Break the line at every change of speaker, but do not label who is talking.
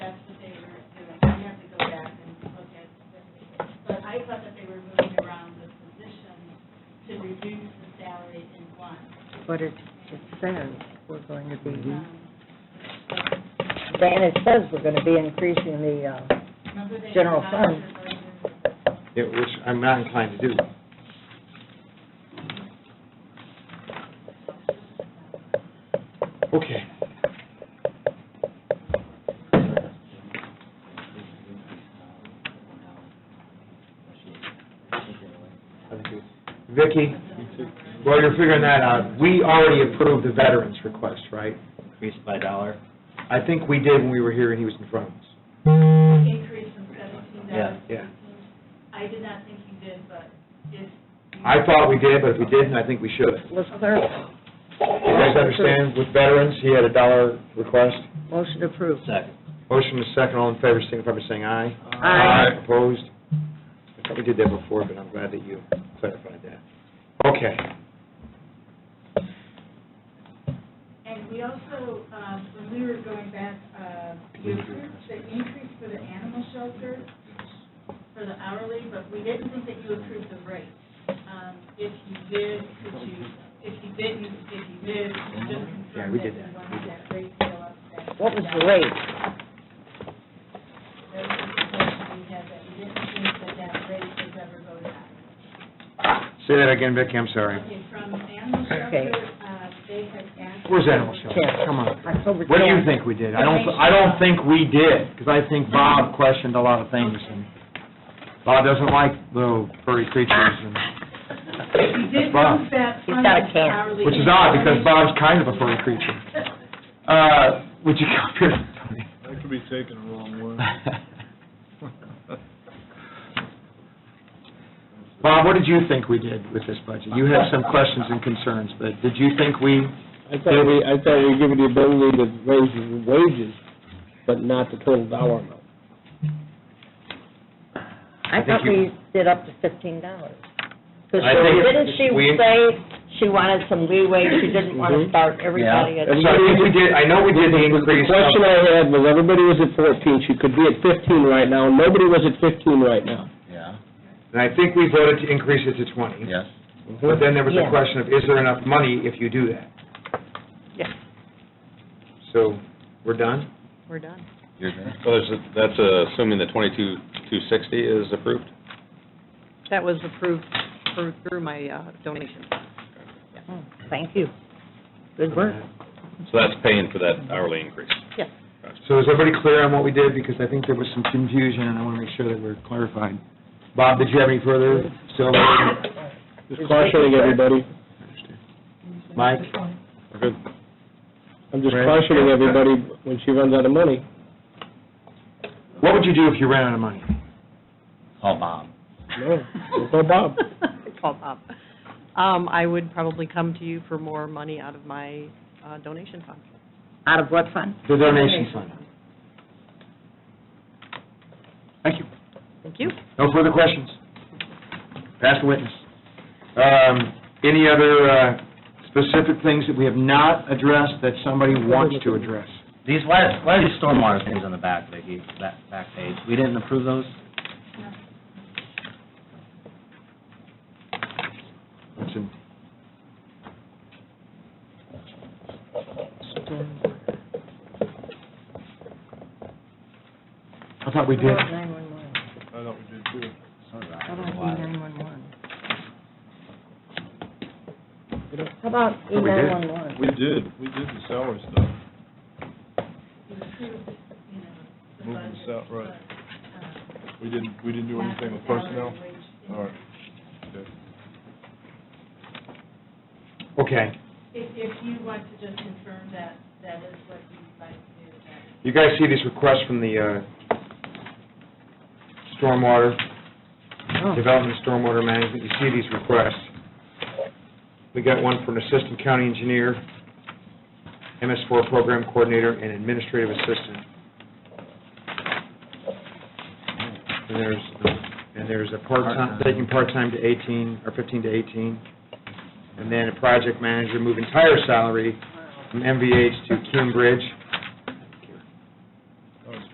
reduce the salaries in one.
But it, it says we're going to
Mm-hmm.
be,
Um,
and it says we're going to be increasing the, uh,
Remember they.
General
had
fund.
voucher
Yeah, which I'm not inclined to do. Okay. Vicki, while you're figuring that out, we already approved the veterans' request, right?
Increased by a dollar?
I think we did when we were here and he was in front of us.
burden Increase from seventeen
Yeah,
dollars.
yeah.
I did not think you did, but if. you-
I thought we did, but if we didn't, I think we should.
let's clarify,
You guys understand, with veterans, he had a dollar request.
motion approved.
Second.
Motion is second, all in favor, signify by saying aye.
Aye.
Opposed? I thought we did that before, but I'm glad that you clarified that. Okay.
And we also, um, when we were going back, uh, we approved the increase for the animal shelter for the hourly, but we didn't think that you approved the rate. Um, If you did, could you, if you didn't, if you did, you just
Yeah,
confirm
we
that
did
you
that.
wanted that rate to go up. that-
What was the rate?
That was the question we had, that we didn't think that that rate would ever go down.
Say that again, Vicki, I'm sorry.
Okay, from animal
Okay.
shelter, uh, they had asked.
Where's animal shelter?
Ten.
Come on.
October 10th.
What do you think we did? I don't, I don't think we did, because I think Bob questioned a lot of things, and Bob doesn't like little furry creatures, and,
We did
Bob.
move that
He's
from
got a
the
can.
hourly
which is odd, because Bob's kind of a furry creature.
Well,
Uh, would you come here, Tony?
That could be taken the wrong way.
Bob, what did you think we did with this budget? You have some questions and concerns, but did you think we,
I thought we, I thought we were given the ability to raise the wages, but not the total dollar amount.
I
I
thought
think you-
we did up to fifteen dollars. Because
I think
didn't she
we-
say she wanted some leeway, she didn't want to
Mhm.
start everybody
yeah,
at...
so I think we did, I know we did the
The
increase. of-
question I had was, everybody was at fourteen, she could be at fifteen right now, nobody was at fifteen right now.
Yeah,
And I think we voted to increase it to twenty.
yes.
But then there was
Yeah.
the question of, is there enough money if you do that?
Yeah.
So, we're done?
We're done.
You're done?
So there's, a- that's uh, assuming the twenty-two, two sixty is approved?
That was approved through, through my uh, donation.
Oh, Thank you. Good work.
So that's paying for that hourly increase?
Yes.
So is everybody clear on what we did? Because I think there was some confusion, and I want to make sure that we're clarified. Bob, did you have any further? Still?
Just cautioning everybody,
Mike?
Good.
I'm just
Right.
cautioning everybody when she runs out of money.
What would you do if you ran out of money?
Call Oh, Bob.
No, don't call Bob.
Call Bob. Um, I would probably come to you for more money out of my uh, donation fund.
Out of what fund?
The donation fund. Thank you.
Thank you.
No further questions? Pass the witness. Um, Any other uh, specific things that we have not addressed that somebody wants to address?
These, why, why are these stormwater things on the back, Vicki, that back page? We didn't approve those?
What's in- I thought we did.
Nine-one-one.
I thought we did too.
How about E-nine-one-one? How about
Oh, we did.
E-nine-one-one?
We did, we did the salary stuff,
You approved, you know, the
moving
budget,
south, right.
but, um,
We didn't, we didn't do anything with personnel? All right. Okay.
Okay.
uh, If, if you want to just confirm that, that is what you'd like to do, that
You guys see these requests from the uh, stormwater, Development of Stormwater Management, you see these requests. We got one from Assistant County Engineer, MS4 Program Coordinator, and Administrative Assistant. And there's, and there's a part-time, taking part-time to 18, or 15 to 18, and then a project manager moving entire salary from MVH to Cambridge.